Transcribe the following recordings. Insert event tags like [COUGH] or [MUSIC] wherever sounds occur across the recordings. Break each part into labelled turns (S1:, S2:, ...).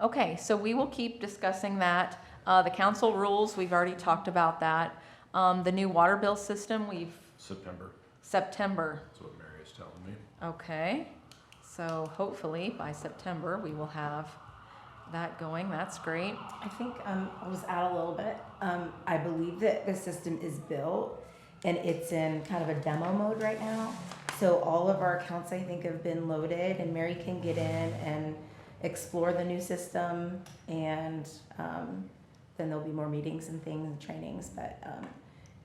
S1: Okay, so we will keep discussing that. Uh, the council rules, we've already talked about that. Um, the new water bill system, we've,
S2: September,
S1: September,
S2: is what Mary is telling me.
S1: okay. So hopefully by September, we will have that going. That's great.
S3: I think um, I'll just add a little bit. Um, I believe that the system is built and it's in kind of a demo mode right now. So all of our accounts, I think, have been loaded and Mary can get in and explore the new system. And um, then there'll be more meetings and things and trainings. But um,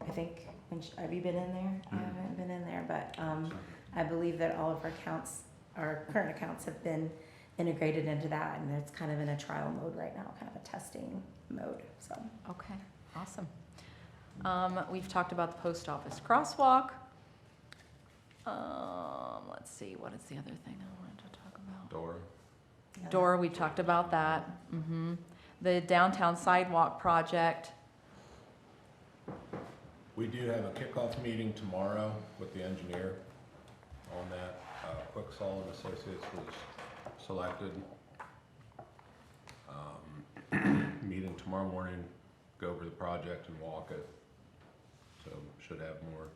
S3: I think, when she, have you been in there? I
S2: Mhm.
S3: haven't been in there, but um, I believe that all of our accounts, our current accounts have been integrated into that and it's kind of in a trial mode right now, kind of a testing mode, so.
S1: Okay, awesome. Um, we've talked about the post office crosswalk. Um, let's see, what is the other thing I wanted to talk about?
S2: Dora,
S1: Dora, we talked about that. hmm The downtown sidewalk project.
S2: we do have a kickoff meeting tomorrow with the engineer on that. Uh, Quicksall and Associates was selected. Um, Meeting tomorrow morning, go over the project and walk it. So should have more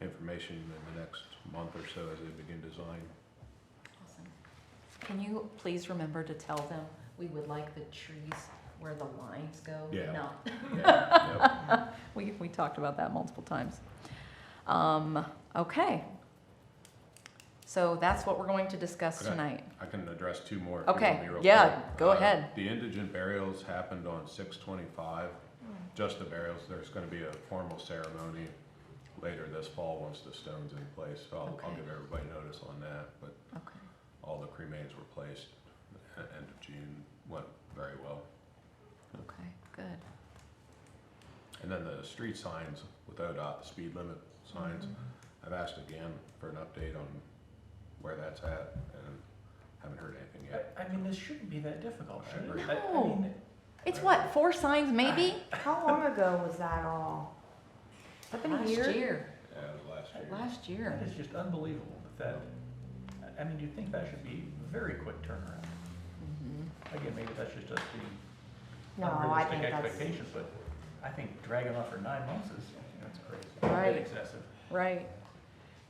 S2: information in the next month or so as they begin design.
S1: Awesome. Can you please remember to tell them we would like the trees where the lines go?
S2: Yeah.
S1: not-
S2: Yeah, yep.
S1: [LAUGHS] We, we talked about that multiple times. Um, okay. So that's what we're going to discuss
S2: Okay.
S1: tonight.
S2: I can address two more. if you
S1: Okay,
S2: want me real
S1: yeah,
S2: quick.
S1: go
S2: Uh,
S1: ahead.
S2: The indigent burials happened on six twenty-five,
S1: Hmm.
S2: just the burials. There's gonna be a formal ceremony later this fall, once the stone's in place. So I'll, I'll
S1: Okay.
S2: give everybody notice on that, but
S1: Okay.
S2: all the cremains were placed at end of June, went very well.
S1: Okay, good.
S2: And then the street signs with ODOT, the speed limit signs,
S1: Mm-hmm.
S2: I've asked again for an update on where that's at and haven't heard anything yet.
S4: I, I mean, this shouldn't be that difficult,
S2: I
S4: should
S2: agree.
S4: it? I- I
S1: No.
S4: mean,
S1: It's what, four signs maybe?
S5: How long ago was that all? Has that been a
S1: Last
S5: year?
S1: year,
S2: Yeah, it was Uh, last year.
S1: last
S4: that
S1: year.
S4: is just unbelievable that that, I- I mean, you'd think that should be very quick turnaround.
S1: Mm-hmm.
S4: Again, maybe that's just us being
S5: No, I think
S4: unrealistic
S5: that's,
S4: expectations, but I think dragging off for nine months is, that's crazy.
S1: Right.
S4: It's excessive.
S1: Right.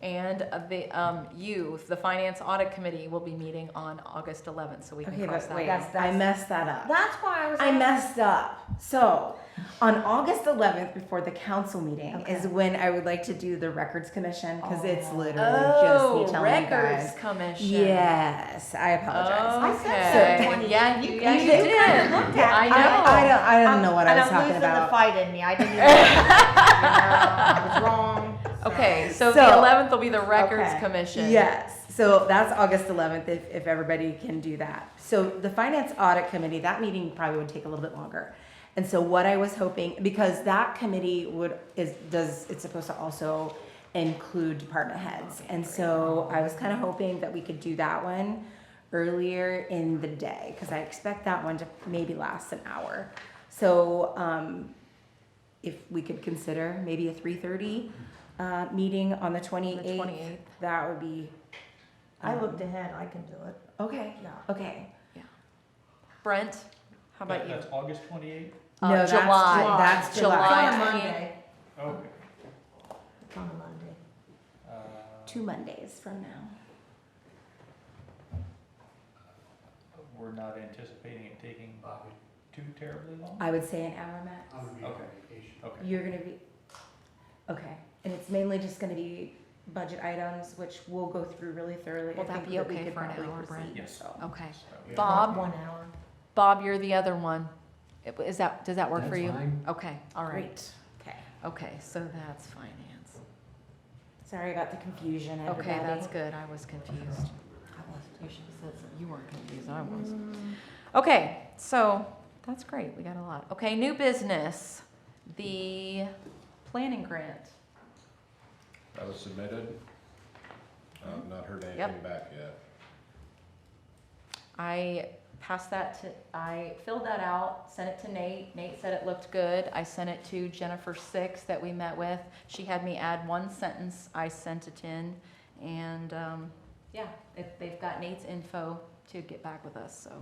S1: And uh, the, um, you, the Finance Audit Committee will be meeting on August eleventh, so we can
S3: Okay,
S1: cross
S3: but
S1: that.
S3: wait,
S1: out.
S5: That's-
S3: I
S5: that's-
S3: messed that up.
S5: that's why I was.
S3: I
S5: like-
S3: messed up. So, on August 11th, before the council meeting, is
S5: Okay.
S3: when I would like to do the records commission because it's
S5: Oh.
S3: literally
S1: Oh,
S3: just me telling you
S1: Records
S3: guys.
S1: Commission.
S3: Yes, I apologize.
S5: I
S1: Okay.
S5: said twenty.
S1: Yeah, you, yeah, you
S5: kinda
S1: did.
S5: looked at
S1: I
S5: me.
S1: know.
S3: I, I don't, I don't know what I
S5: And
S3: was
S5: I'm
S3: talking
S5: losing
S3: about.
S5: the fight in me. I
S3: [LAUGHS]
S5: didn't. Even, you know, I was wrong. so.
S1: Okay, so the
S3: So-
S1: eleventh will be the Records
S5: Okay.
S1: Commission.
S3: Yes, so that's August 11th, if, if everybody can do that. So the Finance Audit Committee, that meeting probably would take a little bit longer. And so what I was hoping, because that committee would, is, does, it's supposed to also include department heads. And so I was kind of hoping that we could do that one earlier in the day, because I expect that one to maybe last an hour. So, um, if we could consider maybe a 3:30, uh, meeting on the 28th.
S1: 28th.
S3: That would be.
S5: I
S3: um,
S5: looked ahead. I can do it.
S3: Okay.
S5: Yeah.
S3: Okay.
S1: Brent, how about
S4: That-
S1: you?
S4: That's August twenty-eighth?
S1: Uh,
S3: No, that's
S1: July.
S3: Ju- that's
S1: July.
S3: July.
S5: It's on a
S1: I-
S5: Monday.
S4: Okay.
S5: It's on a Monday.
S4: Uh,
S3: Two Mondays from now.
S4: We're not anticipating it taking too terribly long?
S3: I would say an hour max.
S4: Okay, okay.
S3: You're gonna be. Okay, and it's mainly just gonna be budget items, which we'll go through really thoroughly.
S1: Will
S3: I
S1: that
S3: think
S1: be
S3: we
S1: okay
S3: could
S1: for an
S3: probably
S1: hour,
S3: proceed,
S1: Brent?
S4: Yes.
S3: so.
S1: Okay.
S4: Yeah.
S1: Bob?
S5: One hour.
S1: Bob, you're the other one. Is that, does that work for you? Okay, all right.
S3: Great. Okay.
S1: Okay, so that's finance.
S3: Sorry about the confusion, everybody.
S1: Okay, that's good, I was confused. I was, you should have said, something. you weren't confused, I was. Okay, so, that's great, we got a lot. Okay, new business, the planning grant.
S2: That was submitted. I've not heard
S1: Yep.
S2: anything back yet.
S1: I passed that to, I filled that out, sent it to Nate. Nate said it looked good. I sent it to Jennifer Six that we met with. She had me add one sentence. I sent it in. And, um, yeah, they- they've got Nate's info to get back with us, so.